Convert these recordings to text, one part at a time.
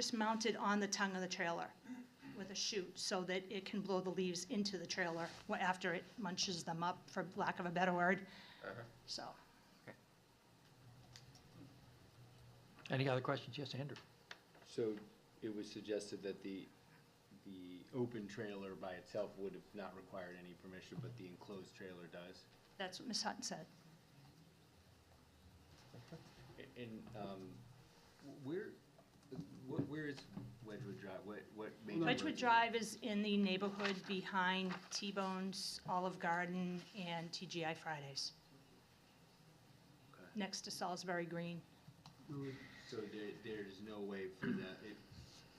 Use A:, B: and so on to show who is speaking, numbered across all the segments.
A: just mounted on the tongue of the trailer with a chute so that it can blow the leaves into the trailer wha- after it munches them up, for lack of a better word. So,
B: Any other questions? Yes, Andrew?
C: So it was suggested that the, the open trailer by itself would have not required any permission, but the enclosed trailer does?
A: that's what Ms. Hutton said.
C: A- And, um, wh- where, wh- where is Wedgewood Drive? What, what? made it
A: Wedgewood Drive is in the neighborhood behind T-Bones, Olive Garden, and TGI Fridays,
C: Okay.
A: next to Salisbury Green.
C: So there, there's no way for that, it,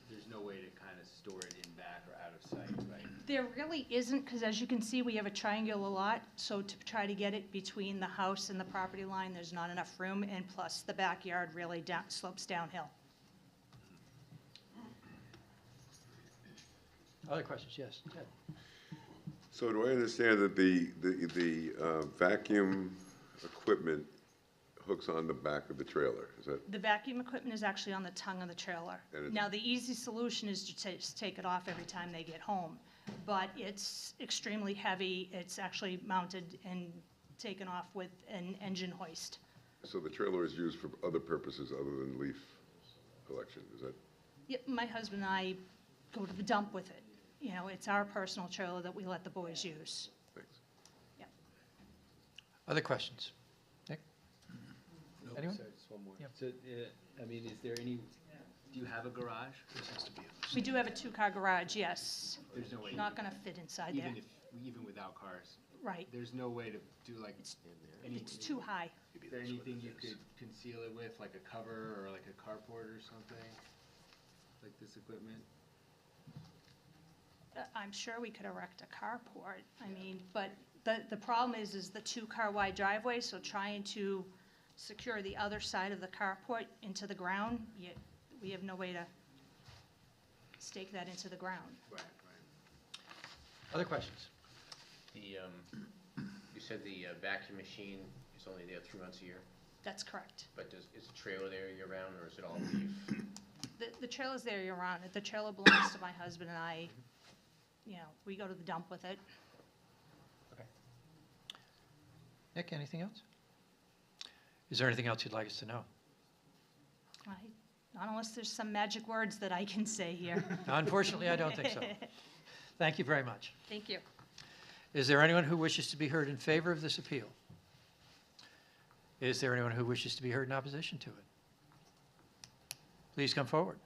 C: there's no way to kind of store it in back or out of sight, right?
A: There really isn't, because as you can see, we have a triangular lot, so to try to get it between the house and the property line, there's not enough room, and plus, the backyard really down- slopes downhill.
B: Other questions? Yes, Ted?
D: So do I understand that the, the, the uh, vacuum equipment hooks on the back of the trailer? Is that,
A: The vacuum equipment is actually on the tongue of the trailer.
D: And it-
A: Now, the easy solution is to ta- just take it off every time they get home, but it's extremely heavy. It's actually mounted and taken off with an engine hoist.
D: so the trailer is used for other purposes other than leaf collection, is that?
A: Yep, my husband and I go to the dump with it. You know, it's our personal trailer that we let the boys use.
D: Thanks.
B: Other questions? Nick?
C: Nope,
B: Anyone?
C: sorry, Just one more.
B: Yeah.
C: So, uh, I mean, is there any, do you have a garage? This has to be.
A: We do have a two-car garage, yes.
C: There's no way,
A: Not gonna fit inside there,
C: even if, even without cars,
A: right.
C: there's no way to do like. any-
A: It's too high.
C: Is there anything you could conceal it with, like a cover or like a carport or something? Like this equipment?
A: Uh, I'm sure we could erect a carport, I mean, but the, the problem is, is the two-car wide driveway, so trying to secure the other side of the carport into the ground, yet we have no way to stake that into the ground.
C: Right, right.
B: Other questions?
E: The, um, you said the uh, vacuum machine is only there three months a year,
A: That's correct.
E: but does, is the trailer there year-round, or is it all leaf?
A: The, the trailer's there year-round, the trailer belongs to my husband and I, you know, we go to the dump with it.
B: Nick, anything else? Is there anything else you'd like us to know?
A: I, not unless there's some magic words that I can say here.
B: Unfortunately, I don't think so. Thank you very much.
A: Thank you.
B: Is there anyone who wishes to be heard in favor of this appeal? Is there anyone who wishes to be heard in opposition to it? Please come forward.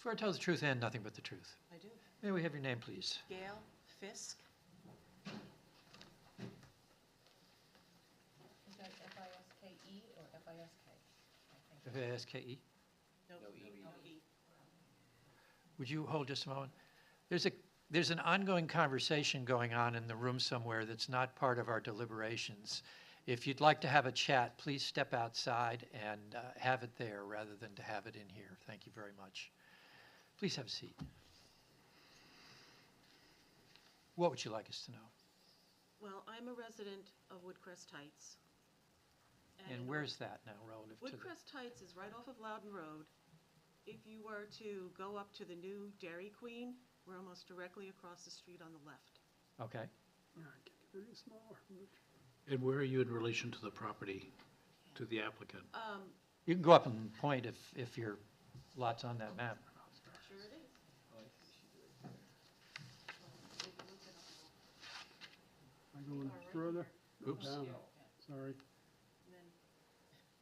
B: Swear to tell the truth and nothing but the truth.
F: I do.
B: May we have your name, please?
F: Gail Fisk.
G: Is that F-I-S-K-E or F-I-S-K?
B: F-A-S-K-E.
F: No E.
B: Would you hold just a moment? There's a, there's an ongoing conversation going on in the room somewhere that's not part of our deliberations. If you'd like to have a chat, please step outside and uh, have it there rather than to have it in here. Thank you very much. Please have a seat. What would you like us to know?
F: Well, I'm a resident of Woodcrest Heights.
B: And where's that now relative to the?
F: Woodcrest Heights is right off of Loudon Road. If you were to go up to the new Dairy Queen, we're almost directly across the street on the left.
B: Okay.
H: And where are you in relation to the property, to the applicant?
F: Um,
B: You can go up and point if, if your lot's on that map.
F: sure it is.
I: Am I going further?
H: Oops.
I: Down. Sorry.
F: And Oh, then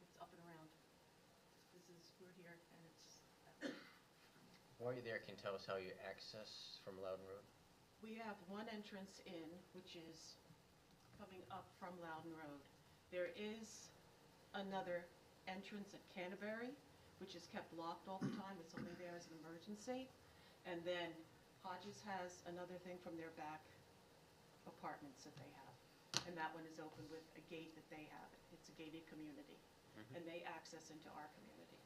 F: it's up and around. This is, we're here and it's,
E: While you're there, can you tell us how you access from Loudon Road?
F: we have one entrance in, which is coming up from Loudon Road. There is another entrance at Canterbury, which is kept locked all the time, it's only there as an emergency. And then Hodges has another thing from their back apartments that they have. And that one is open with a gate that they have, it's a gated community. And they access into our community.